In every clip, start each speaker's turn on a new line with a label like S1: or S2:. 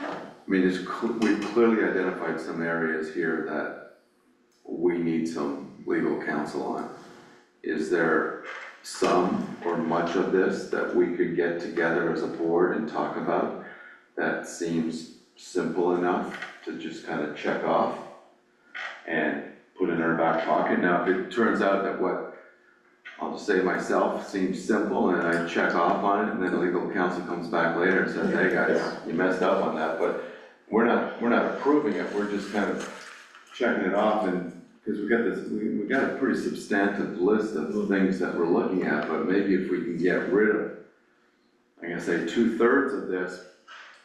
S1: I mean, it's, cl- we've clearly identified some areas here that we need some legal counsel on. Is there some or much of this that we could get together as a board and talk about? That seems simple enough to just kind of check off and put in our back pocket. Now, if it turns out that what, I'll just say myself, seems simple and I check off on it and then legal counsel comes back later and says, hey guys, you messed up on that, but we're not, we're not approving it, we're just kind of checking it off and, because we got this, we, we got a pretty substantive list of things that we're looking at, but maybe if we can get rid of, I'm gonna say two-thirds of this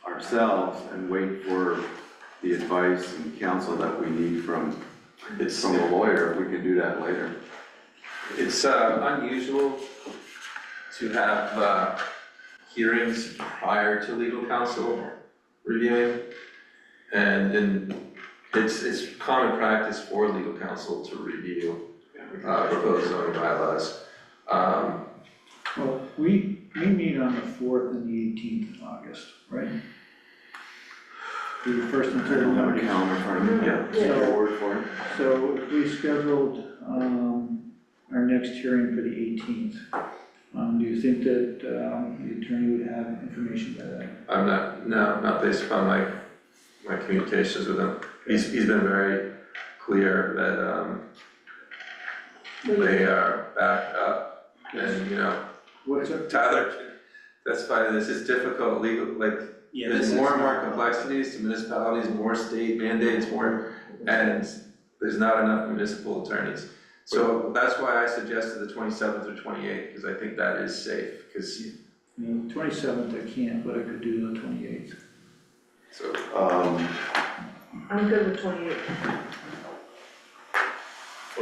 S1: ourselves and wait for the advice and counsel that we need from,
S2: It's,
S1: from a lawyer, we can do that later.
S2: it's uh, unusual to have uh, hearings prior to legal counsel reviewing. And, and it's, it's common practice for legal counsel to review uh, proposed zoning bylaws. Um,
S3: Well, we, we meet on the fourth and the eighteenth of August, right? The first and
S1: I
S3: third
S1: don't have a
S3: Monday.
S1: calendar in front of me.
S2: Yeah.
S1: Is there a word for it?
S3: So if we scheduled, um, our next hearing for the eighteenth, um, do you think that, um, the attorney would have information by then?
S2: I'm not, no, not based upon my, my communications with him. He's, he's been very clear that, um, they are backed up and, you know,
S3: What's up?
S2: Tyler, that's fine, this is difficult legal, like, there's more and more complexities to municipalities, more state mandates, more, and there's not enough municipal attorneys. So that's why I suggested the twenty-seventh or twenty-eighth, because I think that is safe, because,
S3: Twenty-seventh I can't, but I could do the twenty-eighth.
S2: so,
S1: Um,
S4: I'm good with twenty-eight.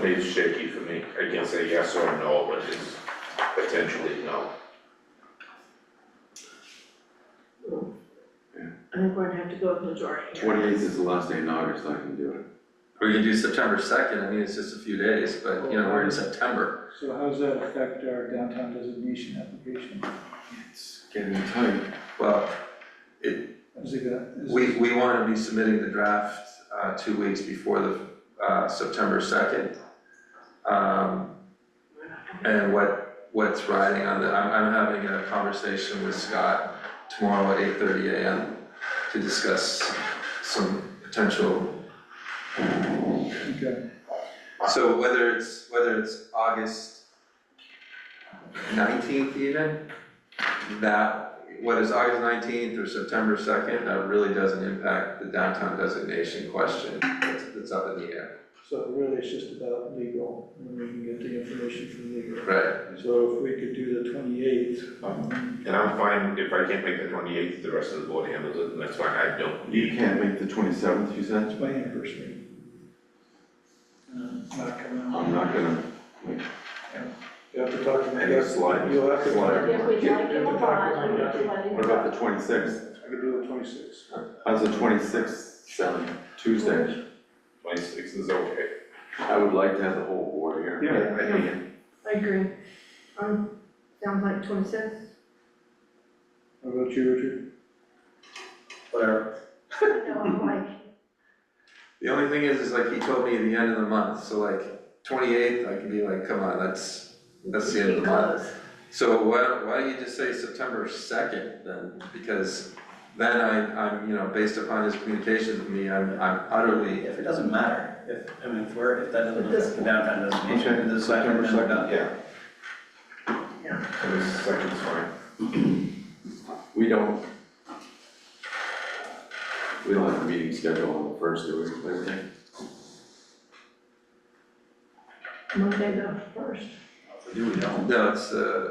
S5: It's shaky for me, I can't say yes or no, but it's potentially no.
S4: I think we're gonna have to go with majority.
S1: twenty-eighth is the last day in August, I can do it.
S2: we can do September second, I mean, it's just a few days, but, you know, we're in September.
S3: So how does that affect our downtown designation application?
S1: It's getting tight.
S2: Well,
S3: Is it gonna? is
S2: we, we wanna be submitting the draft, uh, two weeks before the, uh, September second. Um, and what, what's riding on the, I'm, I'm having a conversation with Scott tomorrow at eight thirty AM to discuss some potential,
S3: Okay,
S2: so whether it's, whether it's August nineteenth even, that, whether it's August nineteenth or September second, that really doesn't impact the downtown designation question that's, that's up in the air.
S3: so really it's just about legal, and we can get the information from legal.
S2: Right,
S3: So if we could do the twenty-eighth, um,
S5: And I'm fine, if I can't make the twenty-eighth, the rest of the board handles it, and that's fine, I don't
S1: You
S5: need.
S1: can't make the twenty-seventh, you said?
S3: that's my anniversary. Uh, it's not coming out.
S1: I'm not gonna,
S3: You have to talk to me.
S1: make a slide.
S3: You'll have to talk to me.
S1: slide.
S4: If we don't give a bond, we have to let
S1: What
S4: it
S1: about
S4: go.
S1: the twenty-sixth?
S3: I could do the twenty-sixth.
S1: How's the twenty-sixth sound? Tuesday?
S5: Twenty-six is okay.
S1: I would like to have the whole board here.
S5: I hear you.
S4: I agree. Um, sounds like twenty-six.
S3: How about you, Richard?
S2: whatever.
S4: I know, I'm like,
S2: The only thing is, is like he told me at the end of the month, so like twenty-eighth, I could be like, come on, that's, that's the end of the month.
S4: because,
S2: So why, don't- why don't you just say September second then, because then I, I'm, you know, based upon his communications with me, I'm, I'm utterly,
S6: If it doesn't matter, if, I mean, if we're, if that doesn't
S4: It does-
S6: affect the downtown designation,
S1: Okay,
S6: then it's not gonna
S1: September
S6: be done.
S5: Yeah.
S4: Yeah.
S5: And this second's fine.
S1: We don't. We don't have a meeting scheduled on the first, do we, Labor Day?
S4: Monday the first.
S6: Do we don't?
S2: no, it's uh, a,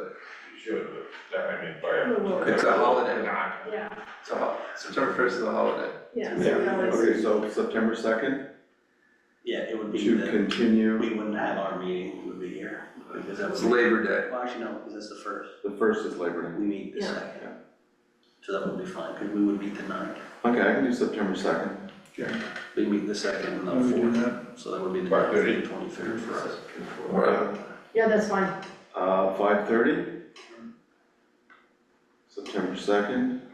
S5: You should, but that I mean, by.
S2: It's a holiday.
S5: Nah.
S4: Yeah,
S2: it's a, hol- September first is a holiday.
S4: yeah,
S1: Yeah,
S4: so we always,
S1: okay, so September second,
S6: Yeah, it would be
S1: to
S6: the,
S1: continue,
S6: we wouldn't have our meeting, it would be here, because that
S2: It's
S6: would
S2: Labor Day.
S6: be, well, actually, no, because that's the first,
S1: the first is Labor Day.
S6: we meet the
S4: Yeah.
S6: second. So that would be fine, because we would meet the ninth,
S1: Okay, I can do September second.
S6: we meet the second and
S3: How we
S6: the
S4: Mm-hmm.
S3: do
S6: fourth,
S3: that?
S6: so that would be the
S5: Five
S6: ninth
S5: thirty.
S6: and twenty-third for us.
S2: Or-
S4: yeah, that's fine.
S1: Uh, five thirty? September second,